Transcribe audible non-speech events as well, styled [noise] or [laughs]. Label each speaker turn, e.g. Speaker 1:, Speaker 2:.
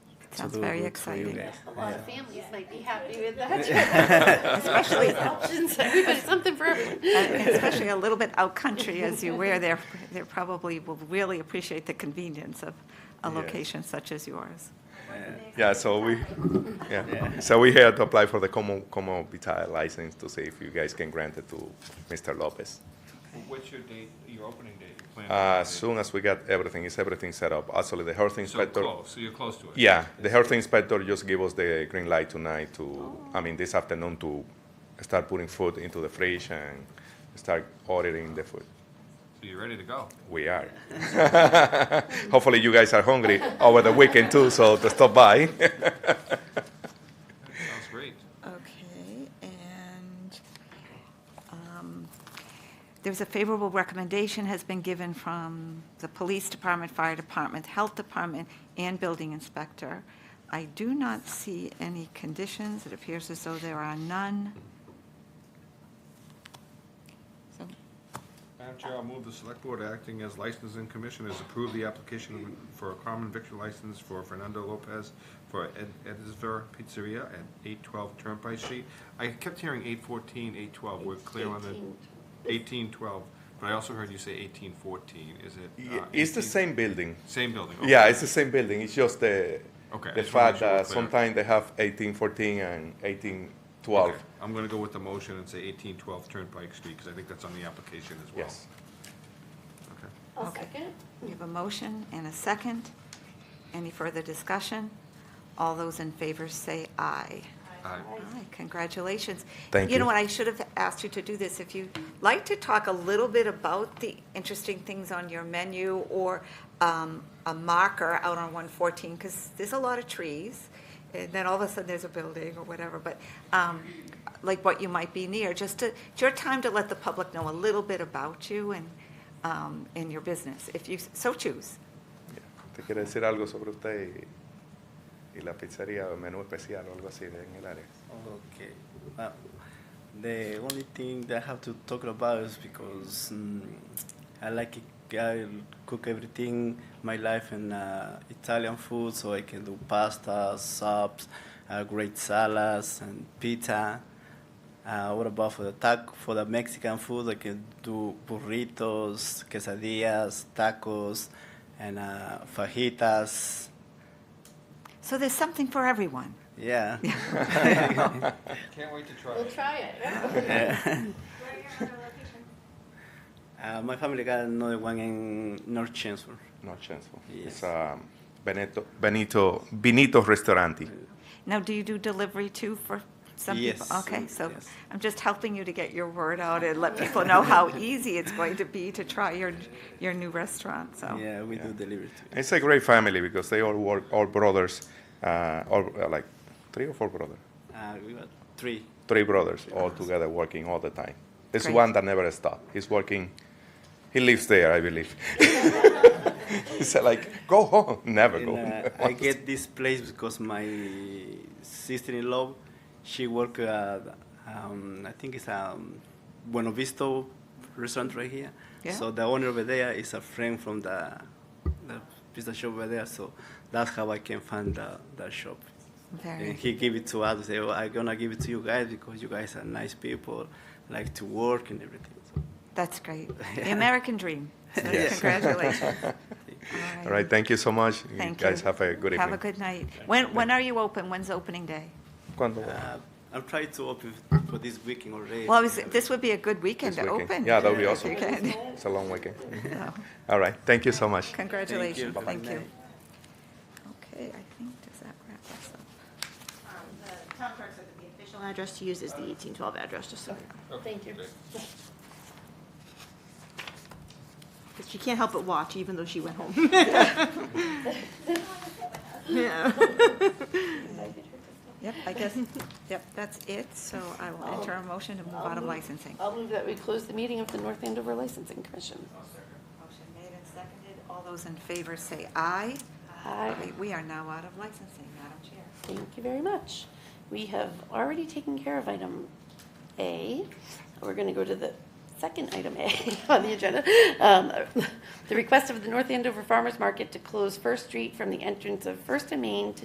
Speaker 1: Sounds
Speaker 2: those
Speaker 1: very
Speaker 2: work for you
Speaker 1: exciting.
Speaker 2: guys?
Speaker 3: A lot of families might be happy with [laughs] that.
Speaker 1: Especially-
Speaker 3: Options, [laughs] everybody, something for everyone.
Speaker 1: [laughs] And Uh, Especially a little bit out country as you were there, they probably will really appreciate the convenience of a
Speaker 2: Yes.
Speaker 1: location such as yours.
Speaker 4: Yeah, so we, yeah, so we had to apply for the common, common vitae license to see if you guys can grant it to Mr. Lopez.
Speaker 5: What's your date, your opening date? your planned
Speaker 4: As
Speaker 5: opening
Speaker 4: soon as we got everything, is everything set up, actually, the health
Speaker 5: date? So
Speaker 4: inspector.
Speaker 5: close, so you're close to it?
Speaker 4: Yeah, the health inspector just gave us the green light tonight to, I mean, this afternoon to start putting food into the fridge and start ordering the food.
Speaker 5: So you're ready to go?
Speaker 4: We are. [laughs] Hopefully, you guys are hungry over the weekend too, so to stop by.
Speaker 5: Sounds great.
Speaker 1: Okay, and um, there's a favorable recommendation has been given from the Police Department, Fire Department, Health Department, and Building Inspector. I do not see any conditions. It appears as though there are none. So
Speaker 5: Madam Chair, I'll move the select board acting as licensing commissioners approve the application for a common victory license for Fernando Lopez for Ed- Edisver Pizzeria at eight twelve Turnpike Street. I kept hearing eight fourteen, eight twelve, we're clear on the eighteen twelve, but I also heard you say eighteen fourteen, is it? uh,
Speaker 4: It's the
Speaker 5: 18
Speaker 4: same building.
Speaker 5: Same building? okay.
Speaker 4: Yeah, it's the same building. It's just the
Speaker 5: Okay, I
Speaker 4: the
Speaker 5: just wanna
Speaker 4: fact
Speaker 5: make sure we're
Speaker 4: that
Speaker 5: clear.
Speaker 4: sometimes they have eighteen fourteen and eighteen
Speaker 5: Okay,
Speaker 4: twelve.
Speaker 5: I'm gonna go with the motion and say eighteen twelve Turnpike Street, because I think that's on the application as well.
Speaker 4: Yes.
Speaker 5: Okay.
Speaker 3: I'll second.
Speaker 1: we have a motion and a second. Any further discussion? All those in favor say aye.
Speaker 5: Aye.
Speaker 1: Aye, congratulations.
Speaker 4: Thank
Speaker 1: You know
Speaker 4: you.
Speaker 1: what, I should have asked you to do this, if you'd like to talk a little bit about the interesting things on your menu or um, a marker out on 114, because there's a lot of trees, and then all of a sudden there's a building or whatever, but um, like what you might be near, just to, it's your time to let the public know a little bit about you and, um, and your business, if you so choose.
Speaker 4: ¿Te quiere decir algo sobre usted y, y la pizzería o menú especial o algo así de- en el área?
Speaker 2: Okay. Well, the only thing that I have to talk about is because mm, I like it, I cook everything my life in uh, Italian food, so I can do pasta, soups, uh, great salads, and pizza. Uh, what about for the tac for the Mexican food? I can do burritos, quesadillas, tacos, and uh, fajitas.
Speaker 1: So there's something for everyone. [laughs]
Speaker 2: Yeah.
Speaker 5: Can't wait to try
Speaker 3: We'll try it. [laughs]
Speaker 2: Uh, [laughs] my family got another one in North Chancellor.
Speaker 4: No chance.
Speaker 2: Yes.
Speaker 4: It's um, Benito Benito Benito Restauranti.
Speaker 1: Now, do you do delivery too for some people?
Speaker 2: Yes,
Speaker 1: Okay, so
Speaker 2: yes.
Speaker 1: I'm just helping you to get your word out and let people
Speaker 2: [laughs]
Speaker 1: know how easy it's going to be to try your, your new restaurant, so.
Speaker 2: Yeah, we do
Speaker 4: Yeah.
Speaker 2: delivery too.
Speaker 4: It's a great family because they all work, all brothers, uh, all uh, like three or four brothers,
Speaker 2: Uh, we got three.
Speaker 4: three brothers all together working all the time. It's
Speaker 1: Great.
Speaker 4: one that never stops. He's working. He lives there, I believe. [laughs] he said, like, go home, [laughs] never
Speaker 2: And,
Speaker 4: go.
Speaker 2: uh,
Speaker 4: [laughs] home.
Speaker 2: I get this place because my sister-in-law, she work at, um, I think it's a Bueno Visto restaurant right here.
Speaker 1: Yeah.
Speaker 2: So the owner over there is a friend from the, the pizza shop over there. So that's how I can find the, the shop.
Speaker 1: Very,
Speaker 2: And he gave it to us. Say, well, I'm gonna give it to you guys because you guys are nice people, like to work and everything.
Speaker 1: [laughs]
Speaker 2: So,
Speaker 1: that's great.
Speaker 2: [laughs]
Speaker 1: The
Speaker 2: Yeah.
Speaker 1: American dream. So
Speaker 2: Yes. [laughs]
Speaker 1: Congratulations.
Speaker 4: All right, thank you so much.
Speaker 1: Thank
Speaker 4: you. guys
Speaker 1: you.
Speaker 4: have a good evening.
Speaker 1: Have a good night. When, when are you open? When's opening day?
Speaker 4: Cuando-
Speaker 2: uh, I'm trying to open for this weekend already.
Speaker 1: Well, I was- this would be a good weekend
Speaker 4: this
Speaker 1: to
Speaker 4: weekend.
Speaker 1: open.
Speaker 4: Yeah, that would be
Speaker 1: if
Speaker 4: awesome.
Speaker 1: you can.
Speaker 4: [laughs] It's a long weekend.
Speaker 1: So,
Speaker 4: All right, thank you so much.
Speaker 1: Congratulations,
Speaker 2: Have a
Speaker 1: thank
Speaker 2: good
Speaker 1: you.
Speaker 2: night.
Speaker 1: Okay, I think, does that wrap us up?
Speaker 6: Um, The town clerk said that the official address to use is the 1812 address, just so you know.
Speaker 3: Thank you.
Speaker 6: Because she can't help but watch, even though she went home. [laughs] Yeah.
Speaker 1: Yep, I guess, yep, that's it, so I will enter a motion to move out of licensing.
Speaker 3: I'll move that we close the meeting of the North Andover Licensing Commission.
Speaker 1: Motion made and seconded, all those in favor say aye.
Speaker 3: Aye.
Speaker 1: We- We are now out of licensing, Madam Chair.
Speaker 3: Thank you very much. We have already taken care of item A. We're going to go to the second item A [laughs] on the agenda. Um, [laughs] The request of the North Andover Farmers Market to close First Street from the entrance of First and Main to